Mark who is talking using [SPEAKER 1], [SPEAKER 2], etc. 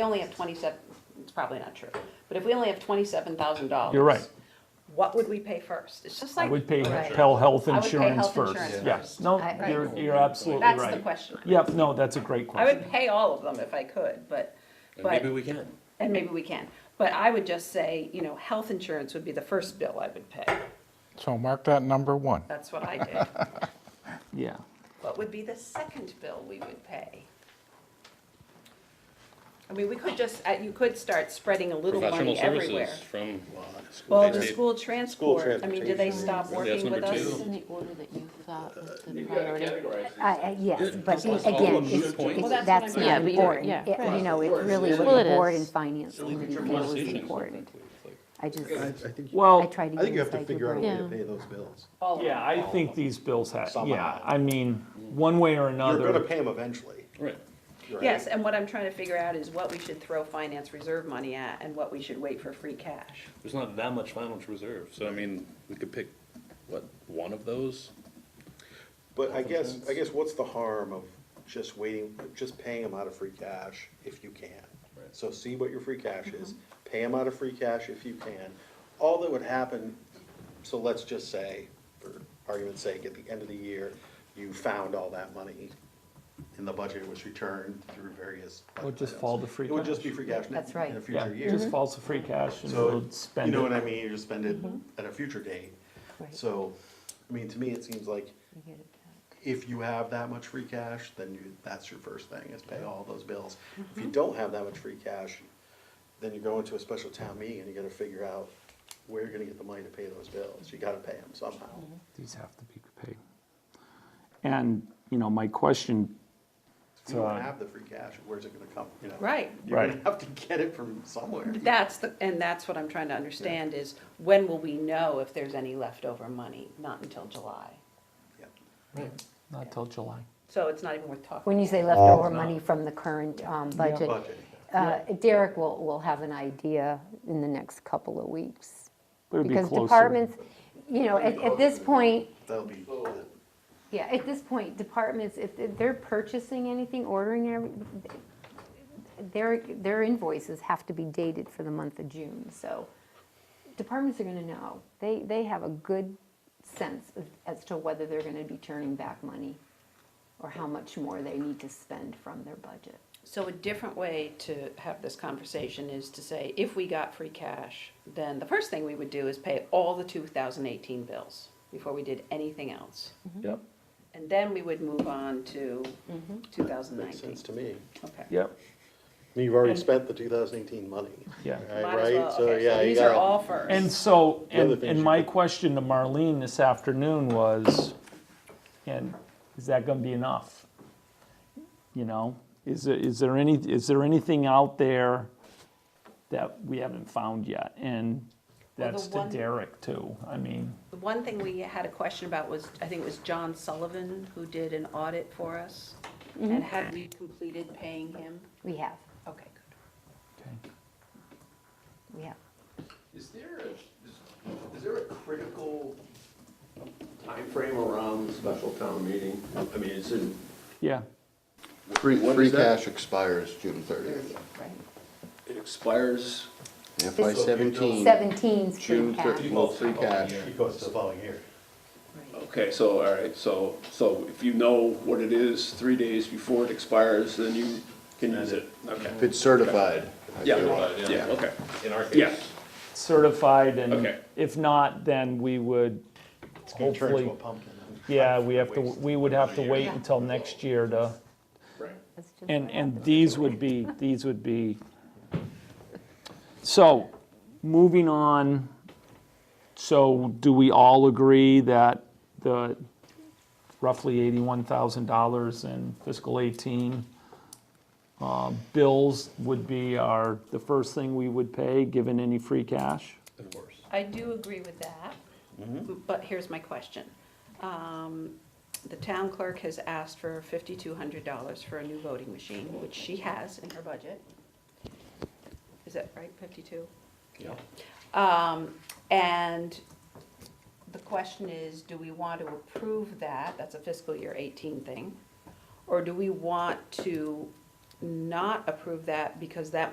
[SPEAKER 1] we only have twenty-seven, it's probably not true, but if we only have twenty-seven thousand dollars.
[SPEAKER 2] You're right.
[SPEAKER 1] What would we pay first? It's just
[SPEAKER 2] I
[SPEAKER 1] like.
[SPEAKER 2] would pay
[SPEAKER 3] Right.
[SPEAKER 2] Pell Health
[SPEAKER 1] I would pay
[SPEAKER 2] Insurance
[SPEAKER 1] health
[SPEAKER 2] first.
[SPEAKER 1] insurance
[SPEAKER 2] Yes,
[SPEAKER 1] first.
[SPEAKER 2] no,
[SPEAKER 3] I-
[SPEAKER 2] you're, you're absolutely right.
[SPEAKER 1] That's the question.
[SPEAKER 2] Yep, no, that's a great
[SPEAKER 1] I
[SPEAKER 2] question.
[SPEAKER 1] would pay all of them if I could, but,
[SPEAKER 4] And
[SPEAKER 1] but,
[SPEAKER 4] maybe we can.
[SPEAKER 1] and maybe we can. But I would just say, you know, health insurance would be the first bill I would pay.
[SPEAKER 5] So mark that number one.
[SPEAKER 1] That's what I did.
[SPEAKER 2] Yeah.
[SPEAKER 1] What would be the second bill we would pay? I mean, we could just, uh, you could start spreading a little
[SPEAKER 4] Professional
[SPEAKER 1] money everywhere.
[SPEAKER 4] services from,
[SPEAKER 1] Well, the
[SPEAKER 4] They-
[SPEAKER 1] school transport, I mean, do they stop
[SPEAKER 4] That's
[SPEAKER 1] working with
[SPEAKER 4] number
[SPEAKER 1] us?
[SPEAKER 4] two.
[SPEAKER 6] This is in the order that you thought was the priority.
[SPEAKER 3] I- I- Yes, but
[SPEAKER 4] Plus all
[SPEAKER 3] again,
[SPEAKER 4] the moot
[SPEAKER 3] it's-
[SPEAKER 4] points.
[SPEAKER 3] it's-
[SPEAKER 4] Well,
[SPEAKER 1] that's
[SPEAKER 3] that's
[SPEAKER 1] what
[SPEAKER 3] not
[SPEAKER 6] I mean. Yeah, but you're-
[SPEAKER 3] important.
[SPEAKER 6] yeah.
[SPEAKER 3] It- You know, it's really
[SPEAKER 6] Well,
[SPEAKER 3] what
[SPEAKER 6] it
[SPEAKER 3] the board
[SPEAKER 6] is.
[SPEAKER 3] and finance committee feels is important. I just,
[SPEAKER 7] I, I think, you-
[SPEAKER 3] I
[SPEAKER 2] Well,
[SPEAKER 3] try to
[SPEAKER 7] I
[SPEAKER 3] get
[SPEAKER 7] think you have to
[SPEAKER 3] inside
[SPEAKER 7] figure
[SPEAKER 3] your
[SPEAKER 7] out a way to
[SPEAKER 6] Yeah.
[SPEAKER 7] pay those bills.
[SPEAKER 1] All of
[SPEAKER 2] yeah,
[SPEAKER 1] them.
[SPEAKER 2] I think these bills have, yeah,
[SPEAKER 7] Somehow.
[SPEAKER 2] I mean, one way or
[SPEAKER 7] You're
[SPEAKER 2] another.
[SPEAKER 7] gonna pay them eventually.
[SPEAKER 4] right.
[SPEAKER 7] right?
[SPEAKER 1] Yes, and what I'm trying to figure out is what we should throw finance reserve money at and what we should wait for free cash.
[SPEAKER 4] There's not that much financial reserve, so I mean, we could pick, what, one of those?
[SPEAKER 7] But I guess, I guess what's the harm of just waiting, just paying them out of free cash if you can?
[SPEAKER 4] Right.
[SPEAKER 7] So see what your free cash is, pay them out of free cash if you can. All that would happen, so let's just say, for argument's sake, at the end of the year, you found all that money in the budget, it was returned through various.
[SPEAKER 2] It would just
[SPEAKER 7] budget
[SPEAKER 2] fall
[SPEAKER 7] items.
[SPEAKER 2] to free
[SPEAKER 7] It would just
[SPEAKER 2] cash.
[SPEAKER 7] be free cash in
[SPEAKER 3] That's right.
[SPEAKER 7] in a
[SPEAKER 2] Yeah, Mm-hmm.
[SPEAKER 7] future year.
[SPEAKER 2] it just falls to free cash and
[SPEAKER 7] So,
[SPEAKER 2] we'll
[SPEAKER 7] you
[SPEAKER 2] spend
[SPEAKER 7] know what
[SPEAKER 2] it.
[SPEAKER 7] I mean, you just spend it at a future date.
[SPEAKER 3] Right.
[SPEAKER 7] So, I mean, to me, it seems like
[SPEAKER 3] paper.
[SPEAKER 7] if you have that much free cash, then you, that's your first thing, is pay all those bills. If you don't have that much free cash, then you go into a special town meeting and you gotta figure out where you're gonna get the money to pay those bills. You gotta pay them somehow.
[SPEAKER 2] These have to be paid. And, you know, my question,
[SPEAKER 7] If you don't
[SPEAKER 2] So- uh,
[SPEAKER 7] have the free cash, where's it gonna come, you know?
[SPEAKER 1] Right.
[SPEAKER 7] You're gonna
[SPEAKER 2] Right.
[SPEAKER 7] have to get it from somewhere.
[SPEAKER 1] That's the, and that's what I'm trying to understand is when will we know if there's any leftover money? Not until July.
[SPEAKER 7] Yeah.
[SPEAKER 2] not till July.
[SPEAKER 1] So it's not even worth talking.
[SPEAKER 3] When you say leftover money from the current um, budget,
[SPEAKER 7] Budget.
[SPEAKER 3] uh, Derek will, will have an idea in the next couple of weeks.
[SPEAKER 2] It would be
[SPEAKER 3] Because
[SPEAKER 2] closer.
[SPEAKER 3] departments, you know, at, at this point,
[SPEAKER 7] That'll be,
[SPEAKER 3] Yeah, at this point, departments, if they're purchasing anything, ordering, every- their, their invoices have to be dated for the month of June, so departments are gonna know. They, they have a good sense of- as to whether they're gonna be turning back money or how much more they need to spend from their budget.
[SPEAKER 1] So a different way to have this conversation is to say, if we got free cash, then the first thing we would do is pay all the two thousand eighteen bills before we did anything else.
[SPEAKER 2] Yep,
[SPEAKER 1] And then we would move on to two thousand
[SPEAKER 7] makes
[SPEAKER 1] nineteen.
[SPEAKER 7] sense to me.
[SPEAKER 1] Okay.
[SPEAKER 2] yep,
[SPEAKER 7] You've already spent the two thousand eighteen money.
[SPEAKER 2] yeah.
[SPEAKER 7] Right,
[SPEAKER 1] Might as
[SPEAKER 7] right?
[SPEAKER 1] well,
[SPEAKER 7] So,
[SPEAKER 1] okay,
[SPEAKER 7] yeah,
[SPEAKER 1] so
[SPEAKER 7] you
[SPEAKER 1] these are
[SPEAKER 7] gotta-
[SPEAKER 1] all first.
[SPEAKER 2] And so,
[SPEAKER 7] The other
[SPEAKER 2] and,
[SPEAKER 7] thing
[SPEAKER 2] and
[SPEAKER 7] she
[SPEAKER 2] my
[SPEAKER 7] could-
[SPEAKER 2] question to Marlene this afternoon was, and is that gonna be enough? You know, is there, is there any, is there anything out there that we haven't found yet? And
[SPEAKER 1] Well, the
[SPEAKER 2] that's to
[SPEAKER 1] one-
[SPEAKER 2] Derek too, I mean,
[SPEAKER 1] The one thing we had a question about was, I think it was John Sullivan who did an audit for us. And had we completed paying him?
[SPEAKER 3] We have,
[SPEAKER 1] Okay, good.
[SPEAKER 2] okay.
[SPEAKER 3] we have.
[SPEAKER 8] Is there a, is, is there a critical timeframe around the special town meeting? I mean, it's in,
[SPEAKER 2] yeah,
[SPEAKER 9] Free,
[SPEAKER 8] What
[SPEAKER 9] free
[SPEAKER 8] is that?
[SPEAKER 9] cash expires June thirtieth.
[SPEAKER 8] it expires,
[SPEAKER 9] FY seventeen,
[SPEAKER 3] Seventeen's free
[SPEAKER 9] June
[SPEAKER 3] cash.
[SPEAKER 9] thirtieth, well, free cash.
[SPEAKER 7] It goes to the following year.
[SPEAKER 8] okay, so, all right, so, so if you know what it is three days before it expires, then you can use it, okay.
[SPEAKER 9] If it's certified. I
[SPEAKER 8] Yeah,
[SPEAKER 9] feel-
[SPEAKER 8] yeah, okay,
[SPEAKER 4] In our
[SPEAKER 8] yeah,
[SPEAKER 2] certified and
[SPEAKER 8] Okay.
[SPEAKER 2] if not, then we would
[SPEAKER 7] Gonna turn
[SPEAKER 2] hopefully,
[SPEAKER 7] into a pumpkin.
[SPEAKER 2] yeah, we have to, we would have to wait until next year to,
[SPEAKER 8] right.
[SPEAKER 3] That's just
[SPEAKER 2] And,
[SPEAKER 3] what
[SPEAKER 2] and
[SPEAKER 3] happens.
[SPEAKER 2] these would be, these would be, so, moving on, so do we all agree that the roughly eighty-one thousand dollars in fiscal eighteen uh, bills would be our, the first thing we would pay, given any free cash?
[SPEAKER 4] Of course.
[SPEAKER 1] I do agree with that, but here's my question. Um, The town clerk has asked for fifty-two hundred dollars for a new voting machine, which she has in her budget. Is that right, fifty-two?
[SPEAKER 4] Yeah.
[SPEAKER 1] Um, and the question is, do we want to approve that, that's a fiscal year eighteen thing? Or do we want to not approve that because that